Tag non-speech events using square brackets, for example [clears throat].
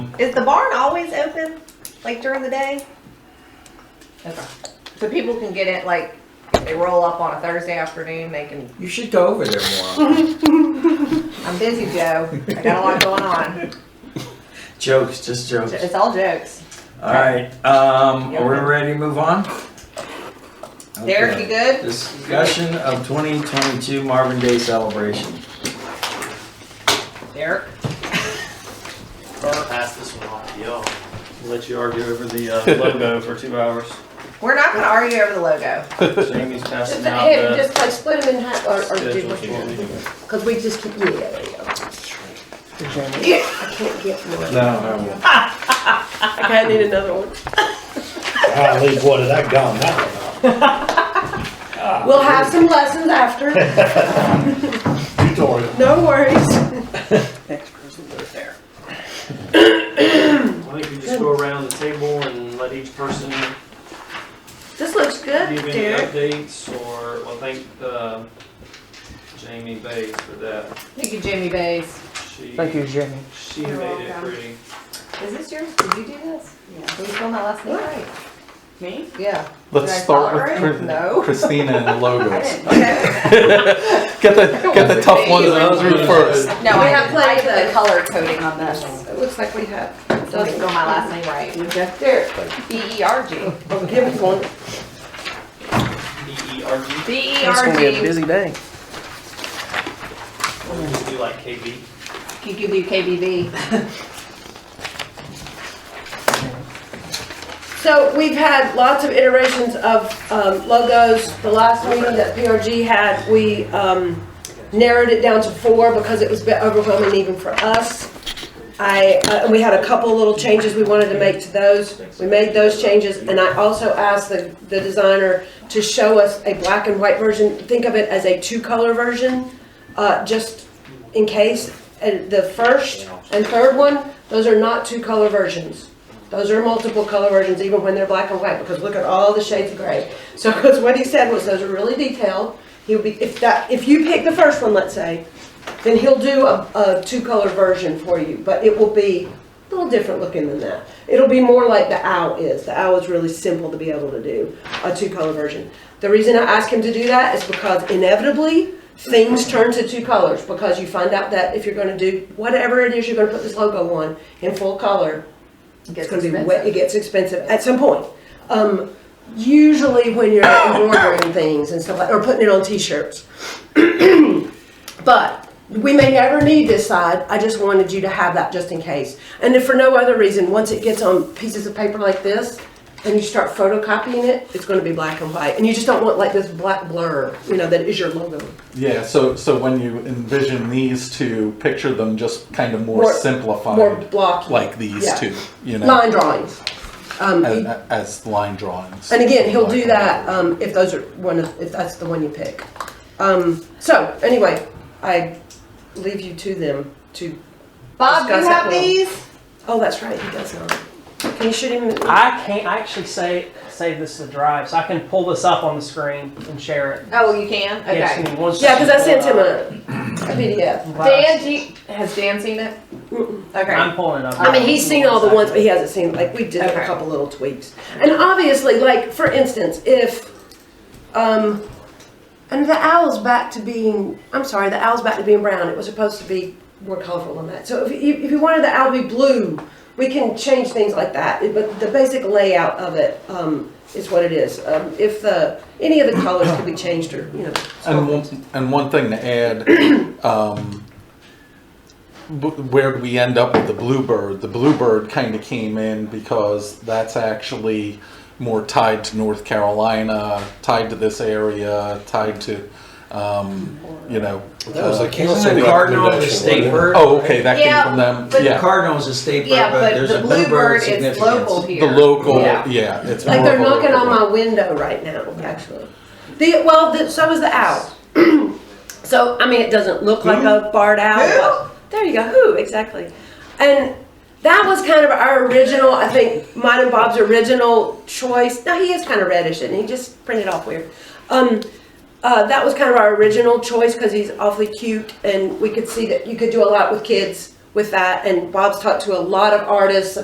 Is the barn always open, like during the day? Okay. So people can get it, like, if they roll up on a Thursday afternoon, they can, You should go over there [laughs] more. I'm busy, Joe. I got a lot going [laughs] on. jokes, just jokes. It's all jokes. All right, um, are we ready to move on? Derek, you Okay. good? Discussion of 2022 Marvin Day celebration. Derek? I'm gonna pass this one off to y'all. Let you argue over the uh, logo for two hours. We're not gonna argue over the logo. Jamie's passing Just, out hey, the just like split them in half, or, or do schedule. what if you you want. want. Cause we just keep, yeah, there you go. I can't get one. No. Okay, I need another one. I leave one of that gone now. [laughs] We'll have some lessons after. [laughs] Tutorial. No [laughs] worries. I think we just go around the table and let each person give This looks good, any Derek. updates or, well, thank uh, Jamie Bates for that. Thank you, Jimmy Bays. She, Thank you, Jimmy. she You're made it welcome. pretty. Is this yours? Did you do this? Yeah. Who's on that last name right? Me? Yeah. Let's Did I start call it with right? Chris- No. Christina [laughs] and the logos. [laughs] Okay. Get the, get the tough one to Those do first. No, We I have have I plenty did of- the color coding on this. It looks like we have. Doesn't go my last name right. Okay, Derek, B E R G. I'll give us one. B E R G. B E It's R gonna be a G. busy day. Would you like KB? Could give you K B V. So we've had lots of iterations of um, logos. The last meeting that PRG had, we um, narrowed it down to four because it was a bit overwhelming even for us. I, uh, and we had a couple little changes we wanted to make to those. We made those changes and I also asked the, the designer to show us a black and white version. Think of it as a two-color version, uh, just in case. And the first and third one, those are not two-color versions. Those are multiple color versions, even when they're black and white, because look at all the shades of gray. So, because what he said was those are really detailed. He'll be, if that, if you pick the first one, let's say, then he'll do a, a two-color version for you, but it will be a little different looking than that. It'll be more like the owl is. The owl is really simple to be able to do, a two-color version. The reason I ask him to do that is because inevitably, things turn to two colors, because you find out that if you're gonna do whatever it is you're gonna put this logo on in full color, it's gonna be, way- it gets expensive at some point. Um, usually when you're embroidering things and stuff like, or putting it on t-shirts. [clears throat] But we may never need this side, I just wanted you to have that just in case. And if for no other reason, once it gets on pieces of paper like this, and you start photocopying it, it's gonna be black and white, and you just don't want like this black blur, you know, that is your logo. Yeah, so, so when you envision these two, picture them just kind of more More- More simplified, blocky. like these Yeah. two, you know, Line drawings. Um, as, as line drawings. And again, he'll do Like- that um, if those are one of, if that's the one you pick. Um, so anyway, I leave you to them to. Bob, do you Discuss it have more. these? Oh, that's right, he does not. Can you shoot him? I can't I actually say save this to drive, so I can pull this up on the screen and share it. Oh, you can? Okay. Yes, in one Yeah, because I sent second, him pull it a, a PDF. up. Dan, do you, has Dan seen it? Okay. I'm pulling it up. I mean, he's seen all the ones, but he hasn't seen like we did Okay. a couple little tweaks. And obviously, like for instance, if um, and the owl's back to being I'm sorry, the owl's back to being brown. It was supposed to be more colorful than that. So if you, if you wanted the owl to be blue, we can change things like that. It- But the basic layout of it um, is what it is. Um, if the any of the colors could be changed or you know. And one, and one thing to add, um, b- where we end up with the bluebird, the bluebird kind of came in because that's actually more tied to North Carolina, tied to this area, tied to, um, you know. That was uh, a Isn't council the cardinal the recommendation, wasn't state it? bird? Oh, okay, that came Yeah, from them, but- yeah. Cardinal's a state bird, Yeah, but but there's the a bluebird bluebird is local significance. here. The local, Yeah. yeah, it's more Like of they're a knocking on local- my window right now, actually. The, well, the, so is the owl. [clears throat] so, I mean, it doesn't look like a barred owl. But there you go. Who exactly? And that was kind of our original, I think, mine and Bob's original choice. Now he is kind of reddish, and he He just printed off weird. Um, uh, that was kind of our original choice because he's awfully cute, and we could see that you could do a lot with kids with that. And Bob's talked to a lot of artists